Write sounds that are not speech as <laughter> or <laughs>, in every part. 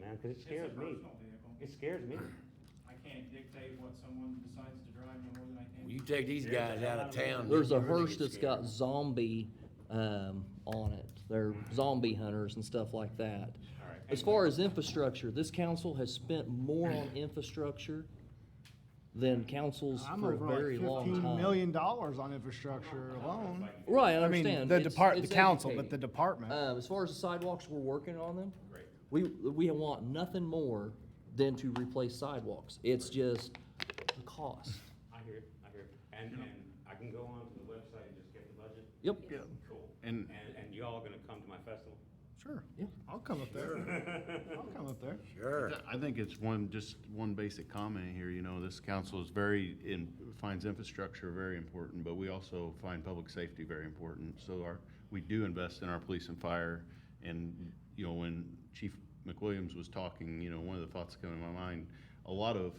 Cause it It's a scares me. personal vehicle. It scares <clears throat> me. I can't dictate what someone decides to drive no more than I Well, can. You take these guys out of town. There's a you're gonna hearse get that's scared. got zombie, um, on it. They're zombie hunters and stuff like that. Alright. As far as infrastructure, this council has spent more on infrastructure than councils I'm for a over like very long fifteen time. million dollars on infrastructure alone. Right, I I mean, understand. the It's- depart, the it's council, but the educating. department. Um, as far as the sidewalks, we're working on them. Great. We, we want nothing more than to replace sidewalks. It's just the cost. I hear it, I hear it. And, and I can go on to the website and just get the budget? Yep. Yeah, Cool. And- And, and y'all gonna come to my <laughs> festival? sure. Yeah. I'll come up there. I'll come up there. Sure. I think it's one, just one basic comment here, you know, this council is very, in- finds infrastructure very important, but we also find public safety very important. So our, we do invest in our police and fire, and, you know, when Chief McWilliams was talking, you know, one of the thoughts that come in my mind, a lot of,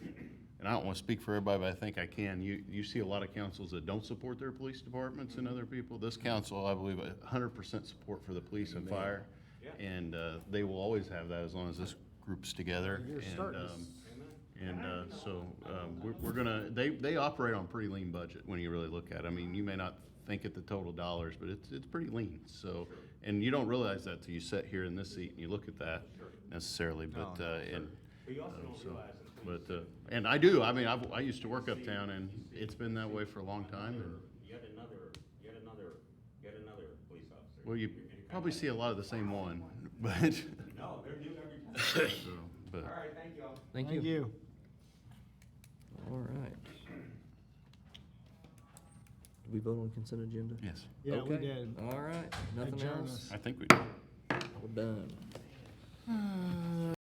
and I don't want to speak for everybody, but I think I can, you, you see a lot of councils that don't support their police departments and other people. This council, I believe, a hundred percent support for the police and fire. And, uh, they will always have that as long as this group's together. You're And, starting to um, s- And, uh, so, um, we're, we're gonna, they, they operate on pretty lean budget when you really look at it. I mean, you may not think at the total dollars, but it's, it's pretty lean, so. And you don't realize that till you sit here in this seat and you look at that necessarily, but, uh, and, But you <laughs> also don't realize that but, uh, and I do, I mean, I've, I used to work uptown and it's been that way for a long time and, yet another, yet another, yet another police officer. well, you You're gonna kinda probably like, see a lot of the same one, <laughs> but, No, they're new every time. so, but. All right, thank y'all. Thank Thank you. you. All right. Did we vote on consent agenda? Yes. Yeah, we Okay. did. All right, nothing Adjourn else? us. I think we do. We're done.